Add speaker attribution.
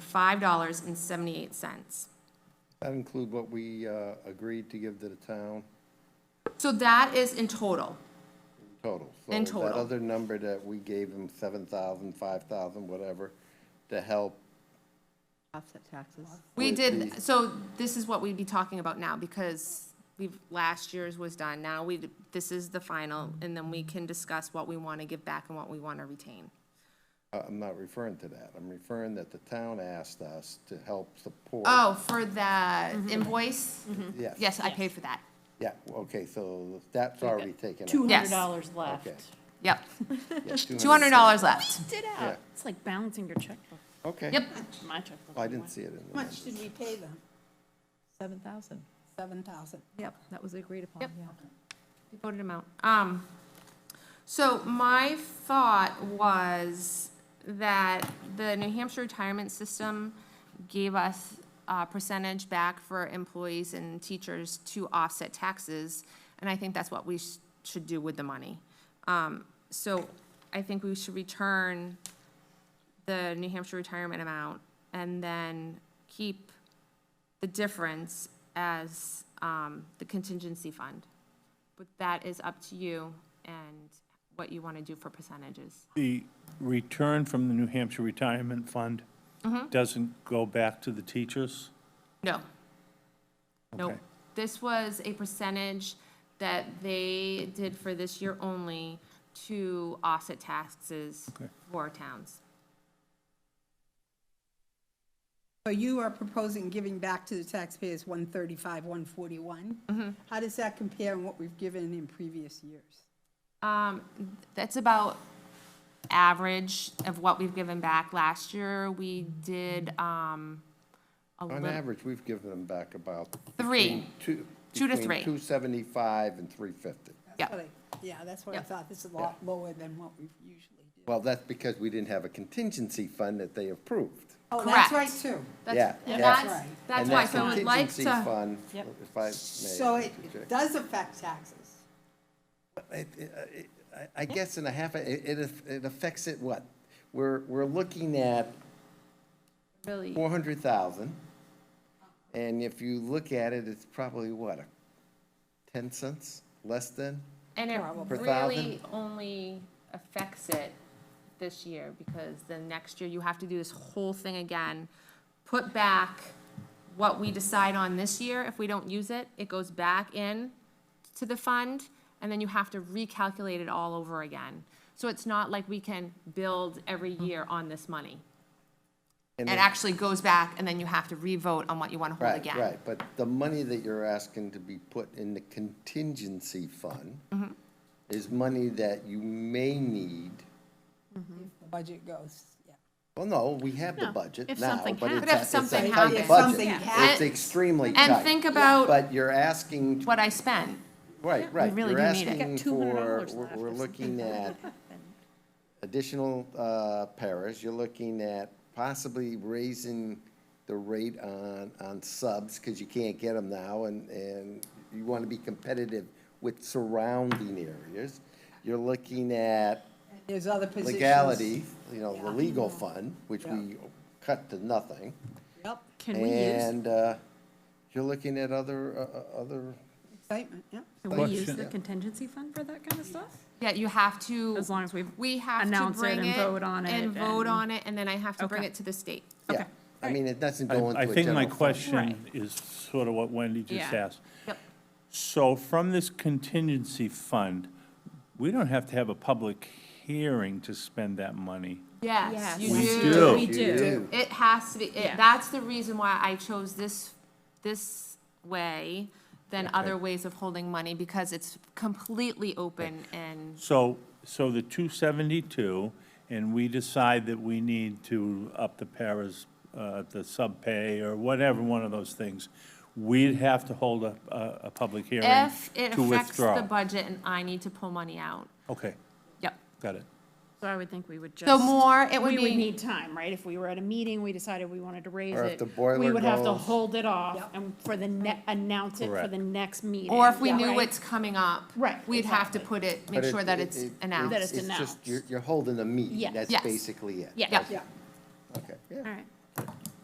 Speaker 1: five dollars and seventy-eight cents.
Speaker 2: That include what we uh, agreed to give to the town
Speaker 1: So that is in total.
Speaker 2: total.
Speaker 1: In
Speaker 2: So that
Speaker 1: total.
Speaker 2: other number that we gave him, 7,000, 5,000, whatever, to help,
Speaker 3: Offset taxes.
Speaker 1: We
Speaker 2: Wait,
Speaker 1: did, so this is what we'd be talking about now, because we've, last year's was done, now we, this is the final, and then we can discuss what we wanna give back and what we wanna retain.
Speaker 2: uh, I'm not referring to that. I'm referring that the town asked us to help support.
Speaker 1: Oh, for the invoice?
Speaker 2: Yes.
Speaker 1: Mm-hmm. Yes, I paid for that.
Speaker 2: Yeah, okay, so that's already taken. out.
Speaker 4: Two hundred
Speaker 1: Yes.
Speaker 4: dollars left.
Speaker 2: Okay.
Speaker 1: Yep,
Speaker 2: Yeah,
Speaker 1: two hundred dollars left.
Speaker 4: Did
Speaker 2: Yeah.
Speaker 4: out. It's like balancing your checkbook,
Speaker 2: Okay.
Speaker 1: Yep,
Speaker 4: my checkbook.
Speaker 2: Oh, I didn't see it in the
Speaker 5: How
Speaker 2: numbers.
Speaker 5: much did we pay them?
Speaker 3: Seven thousand.
Speaker 5: Seven thousand.
Speaker 3: Yep, that was agreed upon,
Speaker 1: Yep.
Speaker 3: yeah.
Speaker 1: we voted him out. Um, so my thought was that the New Hampshire retirement system gave us a percentage back for employees and teachers to offset taxes, and I think that's what we sh- should do with the money. Um, so I think we should return the New Hampshire retirement amount and then keep the difference as, um, the contingency fund. But that is up to you and what you want to do for percentages.
Speaker 6: The return from the New Hampshire Retirement Fund doesn't go back to the teachers?
Speaker 1: No. No.
Speaker 6: Okay.
Speaker 1: This was a percentage that they did for this year only to offset taxes
Speaker 6: Okay.
Speaker 1: for towns.
Speaker 5: So you are proposing giving back to the taxpayers one thirty-five, one forty-one? How does that compare in what we've given in previous years?
Speaker 1: Um, that's about average of what we've given back. Last year, we did, um, a
Speaker 2: On
Speaker 1: little,
Speaker 2: average, we've given them back about.
Speaker 1: Three.
Speaker 2: between Two.
Speaker 1: Two to three.
Speaker 2: Two seventy-five and three fifty.
Speaker 1: yeah.
Speaker 5: What I- Yeah, that's what I
Speaker 1: Yep.
Speaker 5: thought. This is a lot lower than what we've usually did.
Speaker 2: Well, that's because we didn't have a contingency fund that they approved.
Speaker 5: Oh, that's right,
Speaker 1: Correct.
Speaker 5: too.
Speaker 1: That's,
Speaker 2: Yeah,
Speaker 1: that's,
Speaker 5: that's-
Speaker 1: that's
Speaker 2: And
Speaker 1: why,
Speaker 2: that
Speaker 1: so I'd like
Speaker 2: contingency
Speaker 1: to,
Speaker 2: fund,
Speaker 4: Yep.
Speaker 2: If I may.
Speaker 5: So it
Speaker 2: interject.
Speaker 5: does affect taxes.
Speaker 2: It- it- it- I- I guess in a half, it, it aff- it affects it what? We're, we're looking at
Speaker 1: really.
Speaker 2: four hundred thousand, and if you look at it, it's probably what, a ten cents, less than?
Speaker 1: And it
Speaker 2: Per
Speaker 1: really only affects it this year, because then next year you have to do this whole thing again. Put back what we decide on this year, if we don't use it, it goes back in to the fund, and then you have to recalculate it all over again. So it's not like we can build every year on this money.
Speaker 2: Mm-hmm. And
Speaker 1: It
Speaker 2: then-
Speaker 1: actually goes back, and then you have to re-vote on what you wanna hold
Speaker 2: Right,
Speaker 1: again.
Speaker 2: Right, but the money that you're asking to be put in the contingency fund is money that you may need.
Speaker 5: The budget goes, yeah.
Speaker 2: Well, no, we have the
Speaker 4: No,
Speaker 2: budget
Speaker 4: if
Speaker 2: now,
Speaker 4: something
Speaker 2: but it's a,
Speaker 4: happens. But
Speaker 1: if
Speaker 2: it's a
Speaker 1: something
Speaker 2: tight
Speaker 1: happens.
Speaker 2: budget.
Speaker 5: Yeah.
Speaker 2: It's extremely tight.
Speaker 1: And think about
Speaker 2: But you're asking,
Speaker 1: what I spent.
Speaker 2: right, right,
Speaker 1: really
Speaker 2: you're
Speaker 1: do need it.
Speaker 2: asking
Speaker 4: Got $200
Speaker 2: for,
Speaker 4: left
Speaker 2: we're-
Speaker 4: if
Speaker 2: we're
Speaker 4: something
Speaker 2: looking at additional uh, paras, you're looking at possibly raising the rate on, on subs, because you can't get them now, and, and you want to be competitive with surrounding areas. You're looking at
Speaker 5: There's other positions.
Speaker 2: legality, you know, the legal
Speaker 4: Mm-hmm.
Speaker 2: fund, which we cut to nothing.
Speaker 5: Yep,
Speaker 4: Can we use,
Speaker 2: And uh, you're looking at other, uh, uh, other,
Speaker 5: excitement, yep.
Speaker 4: can we use
Speaker 6: Question.
Speaker 4: the contingency fund for that kind of stuff?
Speaker 1: Yeah, you have to.
Speaker 4: As long as we've
Speaker 1: We have to
Speaker 4: announce it
Speaker 1: bring it.
Speaker 4: and vote on it
Speaker 1: And vote
Speaker 4: and-
Speaker 1: on it, and then I have to bring
Speaker 4: Okay.
Speaker 1: it to the state.
Speaker 2: yeah.
Speaker 4: Okay.
Speaker 2: I mean, it doesn't go into
Speaker 6: I
Speaker 2: a
Speaker 6: think my
Speaker 2: general fund.
Speaker 6: question is sort of what Wendy just
Speaker 4: Yeah.
Speaker 6: asked.
Speaker 1: Yep.
Speaker 6: So from this contingency fund, we don't have to have a public hearing to spend that money.
Speaker 1: Yes, you
Speaker 6: We
Speaker 1: do.
Speaker 6: do.
Speaker 4: We
Speaker 2: You
Speaker 4: do.
Speaker 2: do.
Speaker 1: It has to be, it-
Speaker 4: Yeah.
Speaker 1: that's the reason why I chose this, this way than other ways of holding money, because it's completely open and,
Speaker 6: So, so the 272, and we decide that we need to up the paras, uh, the subpay, or whatever, one of those things, we'd have to hold a, a, a public hearing
Speaker 1: if it
Speaker 6: to
Speaker 1: affects the
Speaker 6: withdraw.
Speaker 1: budget and I need to pull money out.
Speaker 6: Okay,
Speaker 1: Yep.
Speaker 6: got it.
Speaker 4: So I would think we would just.
Speaker 1: So more, it would
Speaker 4: We would
Speaker 1: be,
Speaker 4: need time, right? If we were at a meeting, we decided we wanted to raise
Speaker 2: Or if
Speaker 4: it.
Speaker 2: the boiler
Speaker 4: We would have to
Speaker 2: goes-
Speaker 4: hold it off and for the ne, announce it for
Speaker 6: Correct.
Speaker 4: the next meeting.
Speaker 1: or if we
Speaker 4: Yeah,
Speaker 1: knew
Speaker 4: right?
Speaker 1: it's coming up.
Speaker 4: Right,
Speaker 1: We'd have to
Speaker 4: exactly.
Speaker 1: put it,
Speaker 2: But
Speaker 1: make sure
Speaker 2: it-
Speaker 1: that
Speaker 2: it-
Speaker 1: it's
Speaker 2: it-
Speaker 1: announced.
Speaker 4: That it's
Speaker 2: just-
Speaker 4: announced.
Speaker 2: You're, you're holding a meeting,
Speaker 4: Yes.
Speaker 2: that's
Speaker 1: Yes.
Speaker 2: basically it.
Speaker 4: Yeah.
Speaker 1: Yep.
Speaker 5: Yeah.
Speaker 2: Okay, yeah.
Speaker 4: All right.